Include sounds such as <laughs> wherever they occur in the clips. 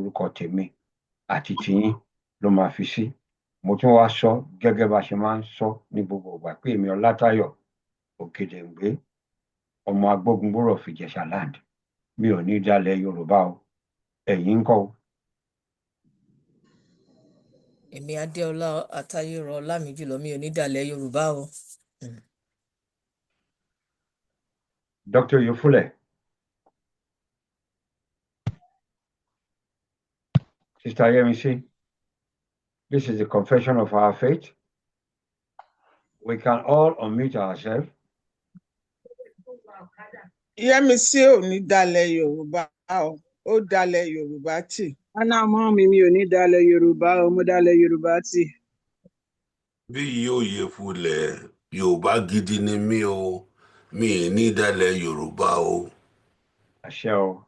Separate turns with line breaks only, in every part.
orúkọ tèmi àti tiyín ló máa fi sí mo tún wáá sọ gẹ́gẹ́ bá a ṣe máa ń sọ ní gbogbo ìgbà pé èmi ọlátayọ̀ òkèdèǹgbé ọmọ agbógunbòrò fìjẹsà land mi ò ní í dalẹ̀ yorùbá o ẹ̀yin ń kọ́ o
èmi adéọlá àtayọrọ ọlámìjùlọ mi ò ní dàlẹ yorùbá o
dr oyefúlẹ̀ sister yemisi this is the confession of our faith we can all unmute ourselves
yẹmísí ò ní dalẹ̀ yorùbá o ó dalẹ̀ yorùbá tì
Ana mọ́ mi mi ò ní dalẹ̀ Yorùbá o, mo dalẹ̀ Yorùbá tì.
bí yóò yẹ fúlẹ̀ yorùbá gidi ni mí o mi ì ní dalẹ̀ yorùbá o
àṣẹ o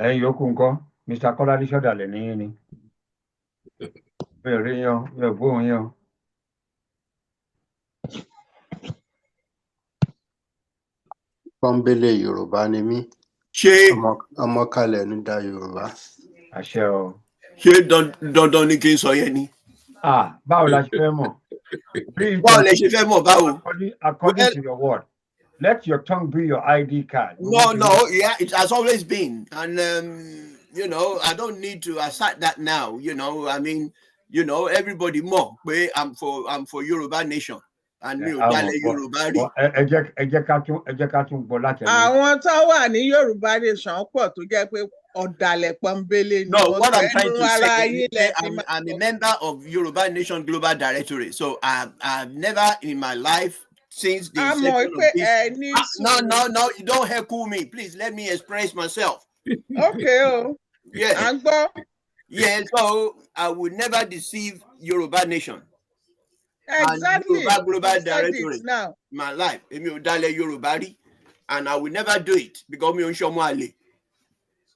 ẹ̀yin yòókù ńkọ́ mr kọ́ládé sọ̀dàlẹ̀ nìyí ni mi ò rí yín o mi ò gbóhùn yín o
pọ́ńbélé yorùbá ni mí
ṣé
ọmọ- ọmọ kalẹ̀ ń da yorùbá
àṣẹ o
ṣé dan- dandan ni kí n sọ yẹn ni
ah báwo la ṣe fẹ́ mọ̀ please
báwo
don't
lẹ ṣe fẹ́ mọ̀ báwo.
according according
Well,
to your word let your tongue be your id card we
No,
want to know
no, yeah, it has always been, and um, you know, I don't need to assert that now. You know, I mean, you know, everybody more. Pé I'm for I'm for Yoruba nation, and
Yeah,
me
a mọ̀
Odale
bọ̀
Yoruba
bọ̀
rí.
ẹ ẹ jẹ́ ẹ jẹ́ ká tún ẹ jẹ́ ká tún gbọ́ látẹnu yín.
àwọn tó wà ní yorùbá nation pọ̀ tó jẹ́ pé ọ̀dàlẹ̀ pọ́nbélé ni
No,
wọ́n
what I'm
ẹnu
trying to say
ara
is
yín lẹ
pé
ti
I'm
máa
I'm a
sọ
member of Yoruba Nation Global Directory, so I've I've never in my life since the
a mọ̀
inception
pé
of this.
ẹ ní
Ah, no,
sùúrù
no, no, you don't heckle me, please. Let me express myself.
ókè o
Yeah.
à ń gbọ́
Yeah, so I will never deceive Yoruba Nation and
exactly
Yoruba
you
Global
said it
Directory
now
in my life. Èmi ò dalẹ̀ Yorùbá rí and I will never do it because mi ò ń ṣọmọ àlè.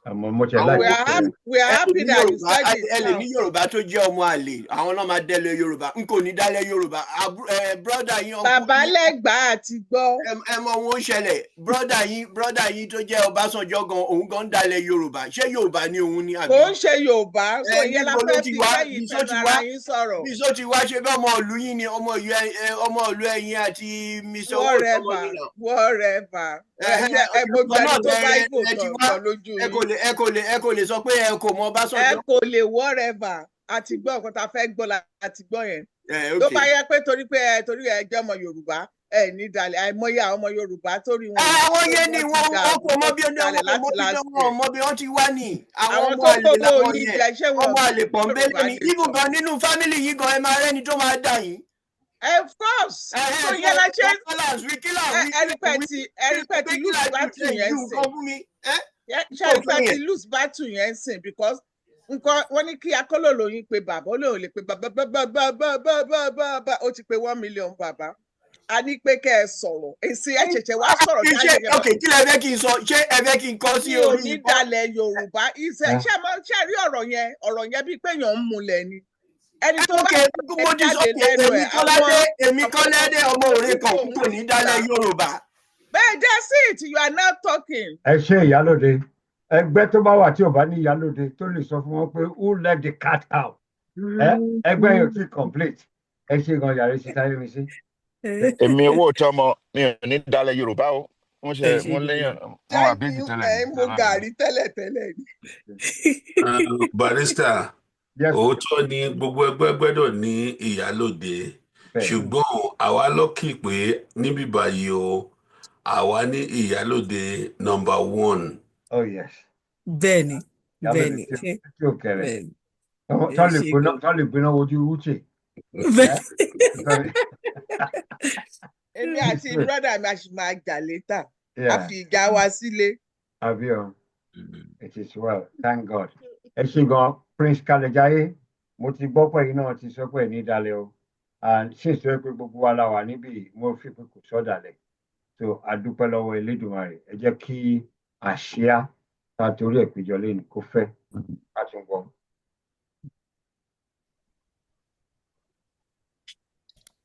àmọ́ mo tẹ̀
we
Àwọn
láti
are happy we are happy
ẹlòmí
that you
Yorùbá
said it
ẹlòmí
now
Yorùbá tó jẹ́ ọmọ àlè àwọn náà máa dẹ́lẹ̀ Yorùbá n kò ní dálẹ̀ Yorùbá. Àbú- eh, Brọ́dà yín ọkọ
bàbá
yín
lẹ́gbàá àti gbọ́
ẹ- ẹ mọ ohun ó ṣẹlẹ̀ brọ́dà yín brọ́dà yín tó jẹ́ Ọbásanjọ́ gan òun gan ń dalẹ̀ Yorùbá. Ṣé Yorùbá ni òun ni
kò
àbí?
ń ṣe yorùbá so
Ẹ
ìyẹn la
níbo ló
fẹ́
ti
fi
wá?
kẹ́yìn
Bisọ́
fẹnu
ti
ara
wá?
yín sọ̀rọ̀
bí sọ ti wá ṣe bá ọmọ ìlú yín ni ọmọ ìlú ẹ- ẹ- ọmọ ìlú ẹyin àti mr owó ìsọmọ
whatever
yín náà
whatever
Eh,
ẹ ṣe ẹ mo
orúkọ
gbẹni
náà
tó
lẹ
bá ibo
lẹ ti
sọ̀rọ̀
wá
gan lójú
ẹ kò
yín
lè ẹ kò lè ẹ kò lè sọ pé ẹ kò mọ
ẹ
ọbásanjọ.
kò lè whatever àti gbọ́ nǹkan tá a fẹ́ gbọ́ láti gbọ́ yẹn
ẹ
tó
ok.
bá yẹ pé torí pé ẹ torí ẹ jẹ́ ọmọ yorùbá ẹ ní dalẹ̀ àìmọye àwọn ọmọ yorùbá torí
Ẹ,
wọn ò
Ah, àwọn
torí
yẹn ni
wọn ti
wọn wọn
dàrú
kò mọ
tó
bí
ti
ọdún
dalẹ̀
wọn kò mọ
láti last
bí ọdún wọn
year
mọ bí wọn ti wá ni àwọn
àwọn
ọmọ
tó
àlè
kówó
làwọn
yín
yẹn
jẹ ṣé wọn
ọmọ
ò
àlè
gbọ́
pọ̀nbélé
yorùbá
ni
nation
ibùgàn nínú fámìlì yìí gan ẹ máa rẹ́ni tó máa dà yín.
of course
ẹ ẹ
so
so
ìyẹn la ṣe
so
ń
balance wí kí là ń
ẹ
wí
ẹ rí
kí là ń
pé
wí
ti ẹ rí pé
pé
ti
kí là
lose
ń ju
battle
ẹ
yẹn
ju
sìn
nǹkan fún mi. ẹ
yẹ- ṣe
kò
rí pé
tó
ti
yẹn.
lose battle yẹn sìn because nǹkan wọn ní kí akólòlóyún pe bàbá olóòrùn lè pe bàbá bàbá bàbá bàbá bàbá ó ti pe one million bàbá a ní pé kẹ ẹ sọ̀rọ̀ èsì ẹ ṣẹ̀ṣẹ̀ wá sọ̀rọ̀
Ṣé
jáde
ṣé
yẹn
ok kí lẹ fẹ́ kí n sọ ṣé ẹ fẹ́ kí n kọ́ sí
mi ò
orí
ní
ikọ́?
dalẹ̀ yorùbá iṣẹ́
ẹ
ṣe máa ṣe rí ọ̀rọ̀ yẹn ọ̀rọ̀ yẹn bíi pé èèyàn ń mulẹ̀ ni ẹni
Ẹ
tó bá
ok
ẹ
mo ti sọ
jáde
pé
lẹ́nu
èmi
ẹ̀ àwọn
Kọ́ládé èmi
àwọn
Kọ́ládé ọmọ òre kan
onígbò
n
mú
kò ní
ta
dálẹ̀ Yorùbá.
bẹ́ẹ̀ that's it you are now talking
ẹ ṣe ìyálòde ẹgbẹ́ tó bá wà tí ò bá ní ìyálòde tó lè sọ fún wọn pé who let the cat out ẹ ẹgbẹ́ yóò ti complete ẹ ṣe gan yàrá sísá yemisi
èmi owó ìtọ́mọ mi ò ní dalẹ̀ yorùbá o wọ́n ṣe
ẹ ṣe
wọ́n lẹ́yìn
yorùbá.
wọn wà
thank
bíjì
you
tẹ́lẹ̀
ẹ
ní
ń mu
aláàánú
gàrí tẹ́lẹ̀tẹ́lẹ̀ ni.
Um, barista
yes
Oh,
òótọ́ ni gbogbo ẹgbẹ́ gbẹ́dọ̀ ní ìyálòde
bẹ́ẹ̀ ni
ṣùgbọ́n àwa lọ́kì pé níbí báyìí o àwa ní ìyálòde nọmba one.
oh yes
bẹ́ẹ̀ ni bẹ́ẹ̀
yálòde
ni
tí
ṣé
tí ò kẹrẹ
bẹ́ẹ̀ ni ẹ
tó lè
ṣe
gbiná
yorùbá.
tó lè gbiná wojú uche ẹ
bẹ́ẹ̀
nítorí
èmi àti
uche
brọ́dà mi a sì máa jà létà a
yeah
fi ìjà wa sílé.
àbí o.
<laughs>
It is well, thank God. Ẹ ṣe gan Prince Kalejaye, mo ti gbọ́ pé iná ti sọ pé ní dalẹ̀ o. And since tó yẹ pé gbogbo wa la wà níbí, yìí, mo fi pé kò sọ́dàlẹ̀. So a dúpẹ́ lọ́wọ́ Elédùmarè. Ẹ jẹ́ kí àṣìá ta torí ẹ̀ péjọ lẹ́nu kó fẹ́ ká tún gbọ́.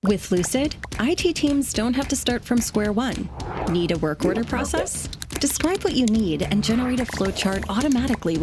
With Lucid, IT teams don't have to start from square one. Need a work order process? Describe what you need and generate a flowchart automatically with